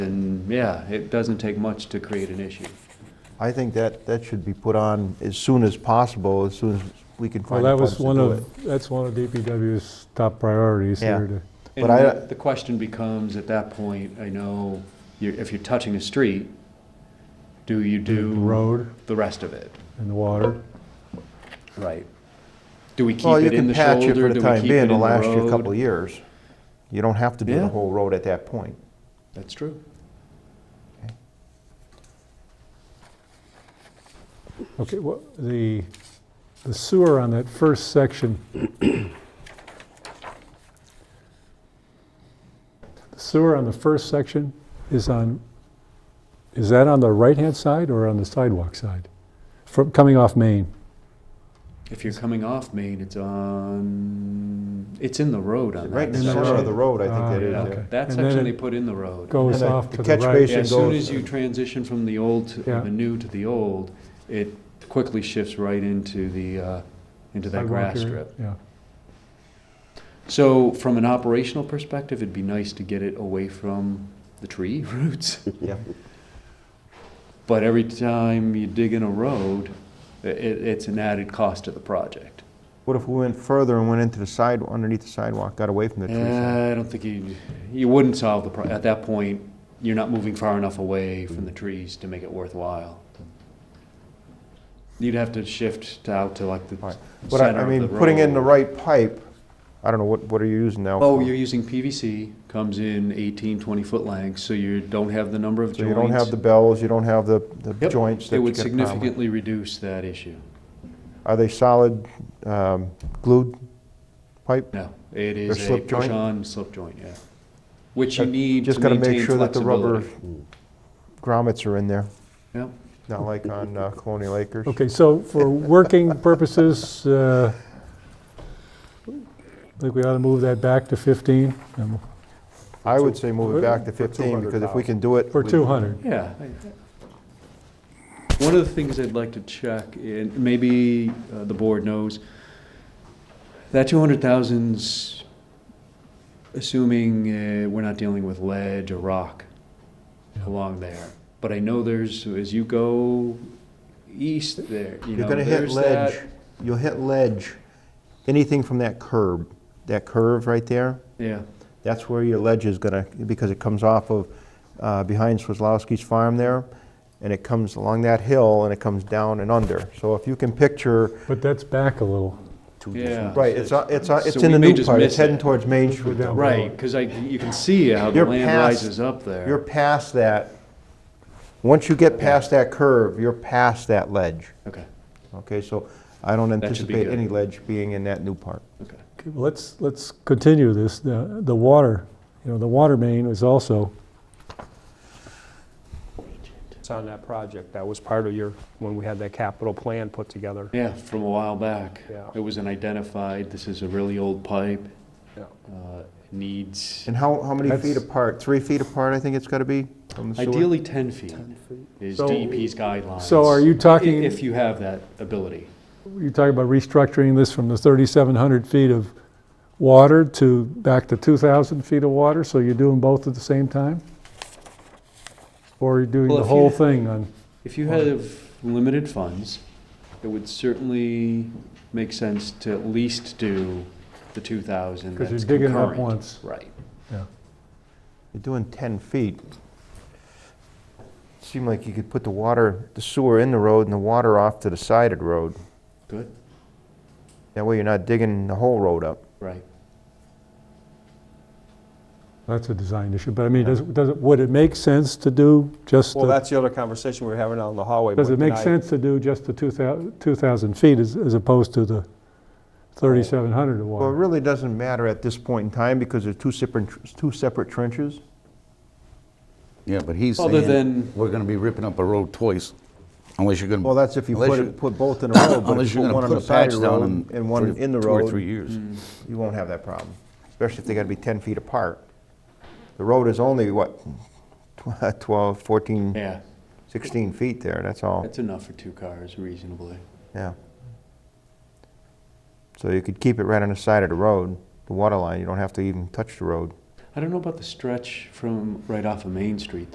yeah, it doesn't take much to create an issue. I think that, that should be put on as soon as possible, as soon as we can Well, find the that funds was to one do it. of, that's one of DPW's top priorities Yeah. here to. But And I- the- The question becomes, at that point, I know, you're, if you're touching a street, do you the do Road the rest of it? and the water. Right. Do we keep Well, you it in can the patch it shoulder? for Do the we time keep being, it it'll in last you a road? couple of years. You don't have to do Yeah. the whole road at that point. That's true. Okay, well, the the sewer on that first section. The sewer on the first section is on, is that on the right-hand side or on the sidewalk side? From, coming off Main? If you're coming off Main, it's on, it's in the road on that. Right in the that's center right. of the road, I Ah, think that Yeah, is. okay. yeah. That And then section it they put in the road. And Goes the- off the to the catch right. basin- Yeah, as soon goes- as you transition from the old, to Yeah. the new to the old, it quickly shifts right into the, uh, into that sidewalk grass area, strip. Yeah. So from an operational perspective, it'd be nice to get it away from the tree roots. Yeah. But every time you dig in a road, i- it, it's an added cost to the project. What if we went further and went into the side, underneath the sidewalk, got away from the trees? Uh, I don't think you, you wouldn't solve the, pro- at that point, you're not moving far enough away from the trees to make it worthwhile. You'd have to shift out to like the Right. But I, center I of mean, the putting in the road. right pipe, I don't know, what, what are you using now? Oh, for? you're using PVC, comes in 18, 20-foot lengths, so you don't have the number of So joints. you don't have the bells, you don't have the, the Yep. joints that It you would get a problem with. significantly reduce that issue. Are they solid um, glued pipe? No, it is a slip joint? push-on slip joint, yeah. Which you Uh, need to Just gotta make maintain sure that the rubber flexibility. grommets are in there, Yep. not like on uh, Colonial Acres. Okay, so for working purposes, uh, I think we ought to move that back to 15 um, I would say move it back to For 15, because if we can do it. or with- 200. Yeah. I- One of the things I'd like to check, and maybe uh, the board knows, that 200,000's assuming uh, we're not dealing with ledge or rock along there. But I know there's, as you go east there, you know, You're gonna hit there's that. ledge, you'll hit ledge, anything from that curb, that curve right there, Yeah, that's where your ledge is gonna, because it comes off of, uh, behind Swislowski's farm there, and it comes along that hill, and it comes down and under. So if you can picture, But that's back a little. yeah. right, it's, uh, it's, uh, So it's we in the may new just part, miss it's heading it. towards Main Street. down Right, because I, you can see how the You're land past- rises up there. You're past that, once you get past that curve, you're past that ledge. Okay, Okay, so I don't That should be anticipate good. any ledge being in that new part. okay. Okay, well, Let's, let's continue this. The the water, you know, the water main was also, It's on that project. That was part of your, when we had that capital plan put together. Yeah, from a while back. Yeah. It was an identified, this is a really old pipe, Yeah. uh, needs And how, how many feet That's- apart? Three feet apart, I think it's got to be from the sewer? ideally 10 feet is So- DEP's guidelines. so are you i- talking, Oh, If you have that ability. you're talking about restructuring this from the 3,700 feet of water to back to 2,000 feet of water? So you're doing both at the same time? Or you're doing Well, the if you- whole thing on? If you have limited funds, it would certainly make sense to at least do the 2,000 Because that's you're concurrent. digging up once. Right. Yeah. You're doing 10 feet. Seemed like you could put the water, the sewer in the road and the water off to the side of the road. Good, That way you're not digging the whole road up. right. That's a design issue, but I mean, does, does, it- would it make sense to do just, Well, the- that's the other conversation we were having out in the hallway. does but it make tonight- sense to do just the 2,000 2,000 feet as as opposed to the 3,700 of Well, it water? really doesn't matter at this point in time because they're two separate, two separate trenches. Yeah, but he's Other saying, than- we're gonna be ripping up a road twice, unless you're gonna. Well, that's if you unless put, you- it- put both in a row, but Unless if you're you put gonna one on put the a side patch of the down road in. and three- one in the Two road. or three years. you won't have that problem, especially if they gotta be 10 feet apart. The road is only, what, tw- 12, 14, Yeah, 16 feet there, that's all, that's enough for two cars reasonably. yeah. So you could keep it right on the side of the road, the water line, you don't have to even touch the road. I don't know about the stretch from right off of Main Street,